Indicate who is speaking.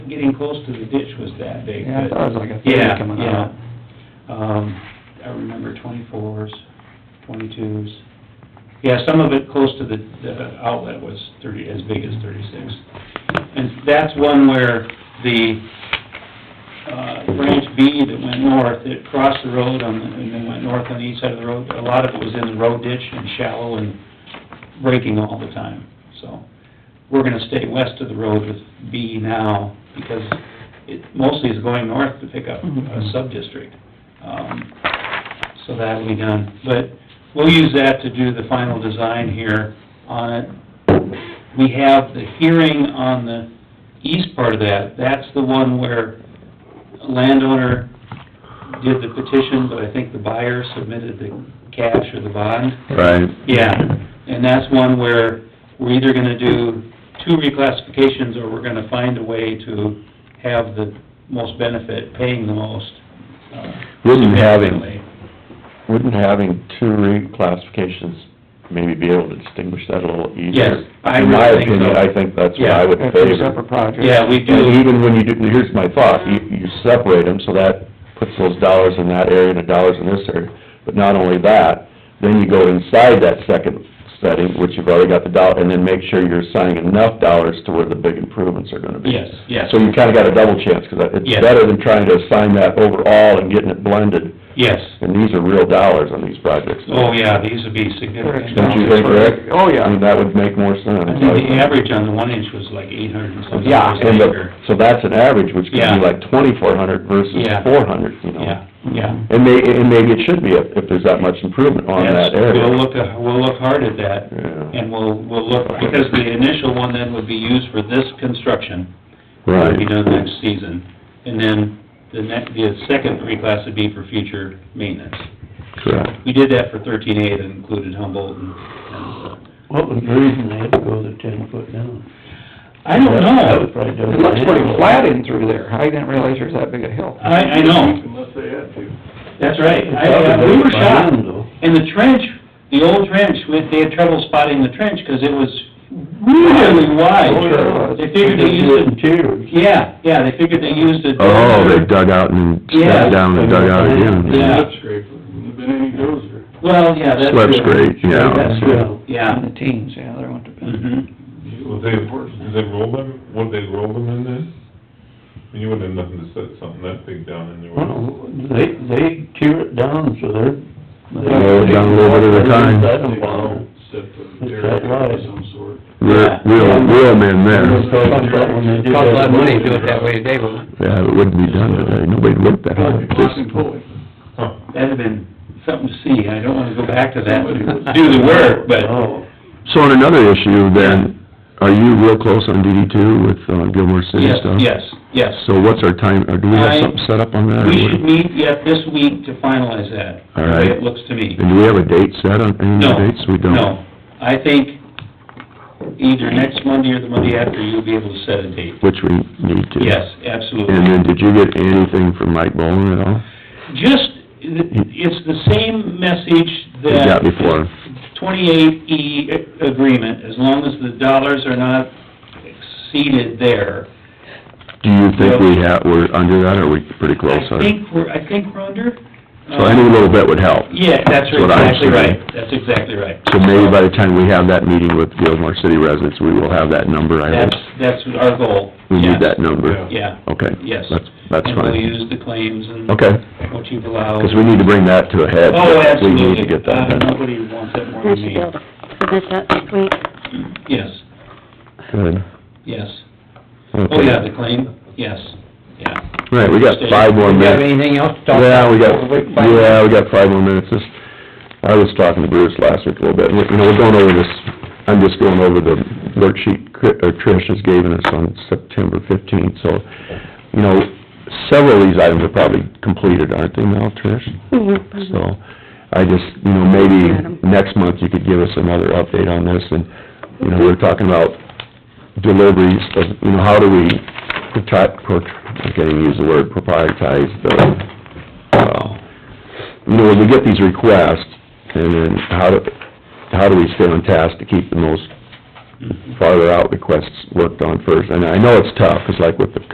Speaker 1: getting close to the ditch was that big,
Speaker 2: Yeah, I
Speaker 1: but-
Speaker 2: thought it was like a
Speaker 1: Yeah,
Speaker 2: thirty coming
Speaker 1: yeah.
Speaker 2: out.
Speaker 1: Um, I remember twenty-fours, twenty-twos. Yeah, some of it close to the, the outlet was thirty, as big as thirty-six. And that's one where the, uh, branch B that went north, it crossed the road on, the and then went north on the east side of the road. A lot of it was in the road ditch and shallow and breaking all the time, so. We're gonna stay west of the road with B now, because it mostly is going north to pick up a
Speaker 2: Mhm.
Speaker 1: sub-district. Um, So that'll be done, but we'll use that to do the final design here on it. We have the hearing on the east part of that, that's the one where a landowner did the petition, but I think the buyer submitted the cash or the bond.
Speaker 3: Right.
Speaker 1: Yeah, and that's one where we're either gonna do two reclassifications, or we're gonna find a way to have the most benefit, paying the most. uh,
Speaker 3: Wouldn't having-
Speaker 1: significantly.
Speaker 3: Wouldn't having two reclassifications maybe be able to distinguish that a little easier?
Speaker 1: Yes, I
Speaker 3: In my
Speaker 1: really think
Speaker 3: opinion,
Speaker 1: so.
Speaker 3: I think that's what I would
Speaker 2: They're two separate
Speaker 3: favor.
Speaker 2: projects.
Speaker 1: Yeah, we
Speaker 3: And
Speaker 1: do,
Speaker 3: even when you do, here's my thought, you, you separate them, so that puts those dollars in that area and the dollars in this area. But not only that, then you go inside that second setting, which you've already got the dollar, and then make sure you're assigning enough dollars to where the big improvements are gonna be.
Speaker 1: yes, yes,
Speaker 3: So you kinda got a double chance, 'cause it's
Speaker 1: Yes.
Speaker 3: better than trying to assign that overall and getting it blended.
Speaker 1: yes.
Speaker 3: And these are real dollars on these projects.
Speaker 1: Oh, yeah, these would be significant.
Speaker 3: Don't you think, Rick?
Speaker 2: Oh, yeah.
Speaker 3: I mean, that would make more sense.
Speaker 1: I think the average on the one inch was like eight hundred and something
Speaker 3: Yeah,
Speaker 1: dollars an
Speaker 3: and the,
Speaker 1: acre.
Speaker 3: so that's an average, which could
Speaker 1: Yeah.
Speaker 3: be like twenty-four hundred versus
Speaker 1: Yeah.
Speaker 3: four hundred, you know?
Speaker 1: Yeah, yeah.
Speaker 3: And may, and maybe it should be if, if there's that much improvement on
Speaker 1: That's-
Speaker 3: that area.
Speaker 1: We'll look, uh, we'll look hard at that,
Speaker 3: Yeah,
Speaker 1: and we'll, we'll look, because the initial one then would be used for this construction.
Speaker 3: right.
Speaker 1: It'll be done next season. And then the next, the second reclass would be for future maintenance.
Speaker 3: Correct.
Speaker 1: We did that for thirteen A that included Humboldt and, and, uh,
Speaker 4: What was the reason they had to go to ten foot down?
Speaker 1: I don't
Speaker 4: That was
Speaker 1: know.
Speaker 4: probably done.
Speaker 2: It looks pretty flat in through there. I didn't realize there's that big a hill.
Speaker 1: I, I know,
Speaker 5: Unless they had to.
Speaker 1: that's right. I, uh, we were shocked. And the trench, the old trench, we- they had trouble spotting the trench because it was really
Speaker 2: Oh,
Speaker 1: wide.
Speaker 2: yeah.
Speaker 1: They figured they used it, yeah, yeah, they figured they used it.
Speaker 3: Oh, dug out and
Speaker 1: sat Yeah. down Yeah.
Speaker 5: Lip scraper, wouldn't have been any dozer.
Speaker 1: Well, yeah, that's.
Speaker 3: Swept scrape, yeah.
Speaker 1: Yeah.
Speaker 2: In the teens, yeah, there went to,
Speaker 1: Mhm.
Speaker 6: Well, they, did they roll them, would they roll them in then? I mean, you wouldn't have nothing to set something that big down in there. would you?
Speaker 4: Well, they, they tear it down, so they're. they-
Speaker 3: Lower it down a little bit at a time.
Speaker 4: Let 'em blow.
Speaker 5: Set the
Speaker 4: It's
Speaker 5: derrick
Speaker 4: that
Speaker 5: of
Speaker 4: wide.
Speaker 5: some sort.
Speaker 1: Real-
Speaker 3: real, real men
Speaker 2: cost a lot of money to do it that way today, but
Speaker 3: Yeah, it wouldn't be done today, nobody'd look that
Speaker 5: Probably block and pulley.
Speaker 6: Huh.
Speaker 1: That'd have been something to see, I don't wanna go back to that,
Speaker 5: Somebody was-
Speaker 1: do the work, but,
Speaker 4: Oh,
Speaker 3: So on another issue then, are you real close on DD two with uh, Gilmore City
Speaker 1: yes,
Speaker 3: stuff?
Speaker 1: yes, yes.
Speaker 3: So what's our time, or do we have
Speaker 1: I-
Speaker 3: something set up on that? or
Speaker 1: We
Speaker 3: what?
Speaker 1: should meet yet this week to finalize that.
Speaker 3: uh, All
Speaker 1: the way
Speaker 3: right.
Speaker 1: It looks to me.
Speaker 3: And do we have a date set on any of
Speaker 1: No,
Speaker 3: the dates? We don't.
Speaker 1: No, I think either next Monday or the Monday after, you'll be able to set a date.
Speaker 3: Which we need to.
Speaker 1: Yes, absolutely.
Speaker 3: And then, did you get anything from Mike Bowman at all?
Speaker 1: Just, it's the same message
Speaker 3: You
Speaker 1: that...
Speaker 3: got before,
Speaker 1: twenty-eight E agreement, as long as the dollars are not exceeded there,
Speaker 3: do you think we have, we're under that, or we pretty close?
Speaker 1: I
Speaker 3: on it?
Speaker 1: think we're, I think we're under. uh,
Speaker 3: So any little bit would help.
Speaker 1: Yeah, that's
Speaker 3: That's what I'm
Speaker 1: exactly right,
Speaker 3: saying.
Speaker 1: that's exactly right.
Speaker 3: So maybe by the time we have that meeting with Gilmore City residents, we will have that number, I
Speaker 1: That's,
Speaker 3: hope.
Speaker 1: that's our goal.
Speaker 3: We
Speaker 1: yes.
Speaker 3: need that number.
Speaker 1: Yeah,
Speaker 3: Okay.
Speaker 1: yes.
Speaker 3: That's, that's
Speaker 1: And we'll
Speaker 3: fine.
Speaker 1: use the claims and
Speaker 3: Okay,
Speaker 1: what you've allowed.
Speaker 3: because we need to bring that to a head.
Speaker 1: Oh, absolutely.
Speaker 3: We need to get that
Speaker 1: Uh,
Speaker 3: done.
Speaker 1: Nobody wants that more
Speaker 7: We
Speaker 1: than
Speaker 7: should
Speaker 1: me.
Speaker 7: be able to submit that next week.
Speaker 1: Yes,
Speaker 3: Good.
Speaker 1: yes.
Speaker 3: Okay.
Speaker 1: Oh, yeah, the claim, yes, yeah.
Speaker 3: Right, we got five more
Speaker 2: do you have
Speaker 3: minutes.
Speaker 2: anything else to talk
Speaker 3: Yeah,
Speaker 2: about?
Speaker 3: we got,
Speaker 2: before we find-
Speaker 3: yeah, we got five more minutes. This- I was talking to Bruce last week a little bit, and, you know, we're going over this, I'm just going over the worksheet Cri- uh, Trish has given us on September fifteenth, so, you know, several of these items are probably completed, aren't they now, Trish?
Speaker 7: Mhm.
Speaker 3: So, I just, you know, maybe next month you could give us another update on this, and, you know, we're talking about deliveries of, you know, how do we protect, I can't even use the word, proprietize the, uh, you know, when we get these requests, and then how do, how do we stay on task to keep the most farther out requests worked on first? And I know it's tough, 'cause like with the